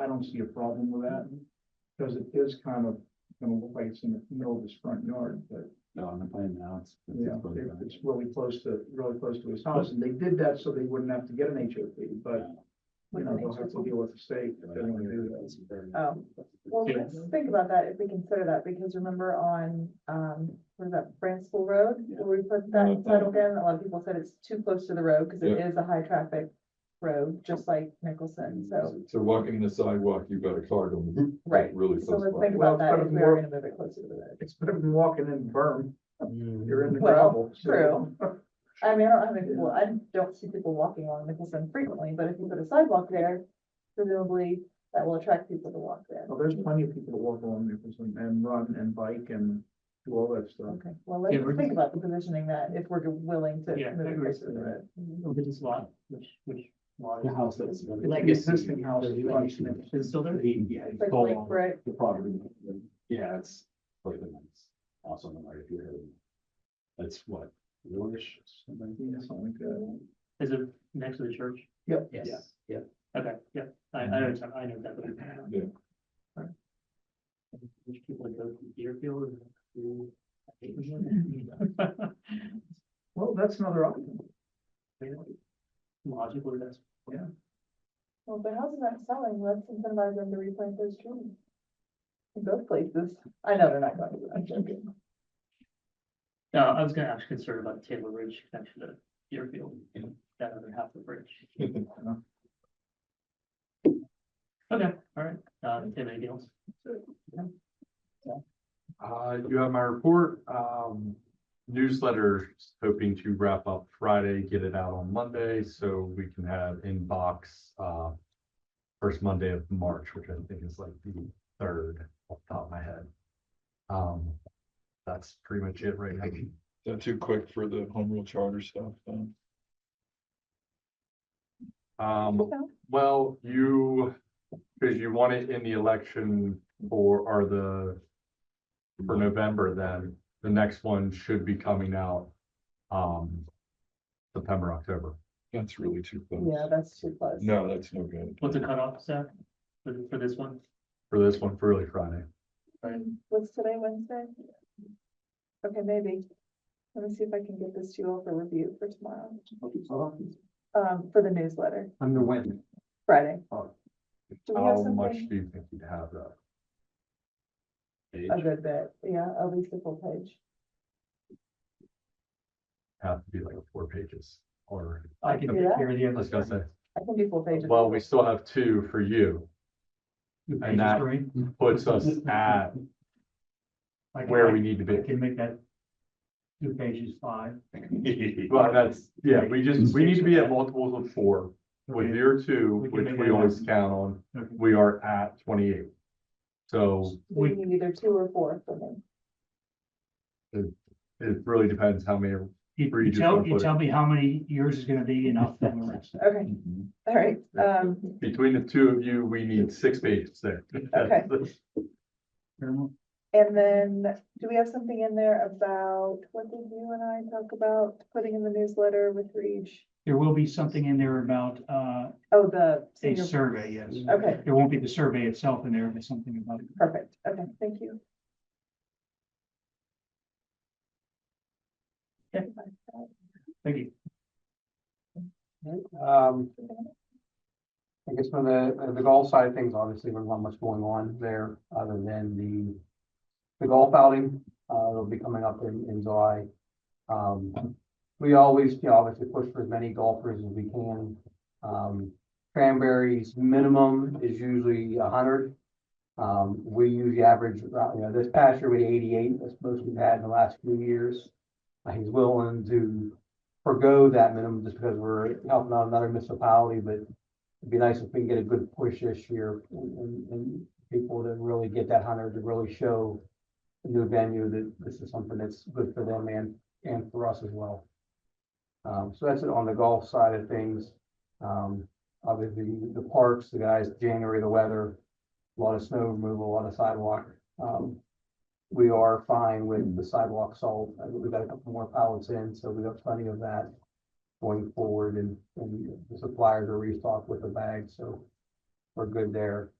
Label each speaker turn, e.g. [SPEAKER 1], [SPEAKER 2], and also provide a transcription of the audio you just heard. [SPEAKER 1] I don't see a problem with that. Because it is kind of, gonna look like it's in the middle of his front yard, but,
[SPEAKER 2] No, on the plan now, it's. it's
[SPEAKER 1] you know,
[SPEAKER 2] above
[SPEAKER 1] it-
[SPEAKER 2] that.
[SPEAKER 1] it's really close to, really close to his house, and they did that so they wouldn't have to get an HOP, but, you know, they'll have to deal with the state if they wanna do that.
[SPEAKER 3] Oh, well, let's think about that, if we consider that, because remember on, um, what is that, Branchville Road? Where we put that title again, a lot of people said it's too close to the road, because it
[SPEAKER 4] Yeah.
[SPEAKER 3] is a high traffic road, just like Nicholson, so,
[SPEAKER 4] So walking the sidewalk, you've got a car going.
[SPEAKER 5] Mm-hmm.
[SPEAKER 4] whoop,
[SPEAKER 3] Right.
[SPEAKER 4] Really
[SPEAKER 3] so
[SPEAKER 4] close
[SPEAKER 3] let's
[SPEAKER 4] by.
[SPEAKER 3] think
[SPEAKER 1] Well,
[SPEAKER 3] about
[SPEAKER 1] it's
[SPEAKER 3] that,
[SPEAKER 1] gotta
[SPEAKER 3] if
[SPEAKER 1] be
[SPEAKER 3] we are
[SPEAKER 1] more-
[SPEAKER 3] gonna move it closer to the road.
[SPEAKER 1] It's better than walking in berm,
[SPEAKER 2] Mm.
[SPEAKER 1] you're in the
[SPEAKER 3] Well,
[SPEAKER 1] gravel. so-
[SPEAKER 3] true. I mean, I don't have any, well, I don't see people walking along Nicholson frequently, but if you put a sidewalk there, presumably that will attract people to walk there.
[SPEAKER 1] Well, there's plenty of people that walk along Nicholson and run and bike and do all that stuff.
[SPEAKER 3] Okay, well, let's
[SPEAKER 6] Yeah, we're
[SPEAKER 3] think about the positioning that, if we're willing to
[SPEAKER 6] Yeah, I
[SPEAKER 3] move it
[SPEAKER 6] agree.
[SPEAKER 3] closer to the road.
[SPEAKER 6] Look at this lot, which, which lot?
[SPEAKER 2] The house that's.
[SPEAKER 1] Like existing house, you want to-
[SPEAKER 6] Is still there?
[SPEAKER 2] Yeah, it's
[SPEAKER 3] Like,
[SPEAKER 2] all
[SPEAKER 3] like
[SPEAKER 2] on
[SPEAKER 3] brick,
[SPEAKER 2] the property. Yeah, it's quite the nice. Also, on the right if you're. That's what, Lorish, something?
[SPEAKER 1] Yeah, something like that.
[SPEAKER 6] Is it next to the church?
[SPEAKER 1] Yep.
[SPEAKER 2] Yes. Yeah.
[SPEAKER 6] Okay, yeah, I, I know, it's- I know that. but-
[SPEAKER 4] Yeah.
[SPEAKER 6] Alright. Which people go to Deerfield? and-
[SPEAKER 1] Well, that's another option.
[SPEAKER 6] Logically, that's.
[SPEAKER 3] well, if the house is not selling, let's incentivize them to replant those trees. In both places, I know they're not going to, I'm joking.
[SPEAKER 6] No, I was gonna actually concerned about the Taylor Ridge connection to Deerfield,
[SPEAKER 4] Yeah.
[SPEAKER 6] that other half of the bridge. Okay, all right, uh, Tim, anything else?
[SPEAKER 5] Uh, you have my report, um, newsletter, hoping to wrap up Friday, get it out on Monday, so we can have inbox, uh. First Monday of March, which I think is like the third off the top of my head. Um, that's pretty much it right now.
[SPEAKER 4] Not too quick for the home rule charter stuff, um.
[SPEAKER 5] Um, well, you, because you want it in the election for, or the. For November, then the next one should be coming out. Um. September, October.
[SPEAKER 4] That's really too close.
[SPEAKER 3] Yeah, that's too close.
[SPEAKER 4] No, that's no good.
[SPEAKER 6] What's the cutoff, Seth, for, for this one?
[SPEAKER 5] for this one, for early Friday.
[SPEAKER 3] What's today, Wednesday? Okay, maybe. Let me see if I can get this to you all for review for tomorrow, um, for the newsletter,
[SPEAKER 2] I'm the wind.
[SPEAKER 3] Friday.
[SPEAKER 2] Oh.
[SPEAKER 3] Do we have
[SPEAKER 5] How Oh, much
[SPEAKER 3] something?
[SPEAKER 5] do you think you'd have uh, that?
[SPEAKER 3] A good bit, yeah, at least a full page.
[SPEAKER 5] Have to be like four pages or,
[SPEAKER 6] I can
[SPEAKER 3] Do that?
[SPEAKER 6] hear the.
[SPEAKER 5] let's go say,
[SPEAKER 3] I can do full pages.
[SPEAKER 5] well, we still have two for you.
[SPEAKER 6] The
[SPEAKER 5] And that
[SPEAKER 6] pages three.
[SPEAKER 5] Puts us at
[SPEAKER 6] I can-
[SPEAKER 5] where we need to
[SPEAKER 6] I
[SPEAKER 5] be.
[SPEAKER 6] can make that two pages five.
[SPEAKER 5] Well, that's, yeah, we just, we need to be at multiples of four. With
[SPEAKER 6] Okay,
[SPEAKER 5] your two,
[SPEAKER 6] We can
[SPEAKER 5] which
[SPEAKER 6] make
[SPEAKER 5] we
[SPEAKER 6] that
[SPEAKER 5] always
[SPEAKER 6] happen.
[SPEAKER 5] count on,
[SPEAKER 6] okay.
[SPEAKER 5] we are at twenty-eight. So
[SPEAKER 3] We
[SPEAKER 6] We,
[SPEAKER 3] need either two or four for me.
[SPEAKER 5] it really depends how many,
[SPEAKER 6] you
[SPEAKER 5] Or you
[SPEAKER 6] you
[SPEAKER 5] just
[SPEAKER 6] tell,
[SPEAKER 5] wanna
[SPEAKER 6] you
[SPEAKER 5] put it-
[SPEAKER 6] tell me how many yours is gonna be and I'll fill the rest.
[SPEAKER 3] Okay,
[SPEAKER 4] Mm-hmm.
[SPEAKER 3] all right, um,
[SPEAKER 5] between the two of you, we need six pages there.
[SPEAKER 6] Fair enough.
[SPEAKER 3] and then, do we have something in there about, what did you and I talk about, putting in the newsletter with Reach?
[SPEAKER 6] There will be something in there about, uh,
[SPEAKER 3] Oh, the
[SPEAKER 6] a
[SPEAKER 3] senior,
[SPEAKER 6] survey, yes.
[SPEAKER 3] okay,
[SPEAKER 6] There won't be the survey itself in there, but something about it.
[SPEAKER 3] perfect, okay, thank you.
[SPEAKER 6] Okay. Thank you.
[SPEAKER 2] Um, I guess from the, uh, the golf side of things, obviously, there's not much going on there other than the, the golf outing, uh, will be coming up in, in July. Um, we always, you know, obviously push for as many golfers as we can. Um, Cranberry's minimum is usually a hundred. Um, we usually average, about, you know, this past year we had eighty-eight, that's most we've had in the last few years. Uh, He's willing to forego that minimum just because we're helping out another municipality, but it'd be nice if we can get a good push this year and, and- and people to really get that hunter to really show the new venue that this is something that's good for them and, and for us as well. Um, so that's it on the golf side of things. Um, obviously, the parks, the guys, January, the weather, a lot of snow removal, a lot of sidewalk. Um, we are fine with the sidewalk salt. I think We've got a couple more pallets in, so we've got plenty of that going forward and, and the suppliers are restocked with the bags, so we're good there.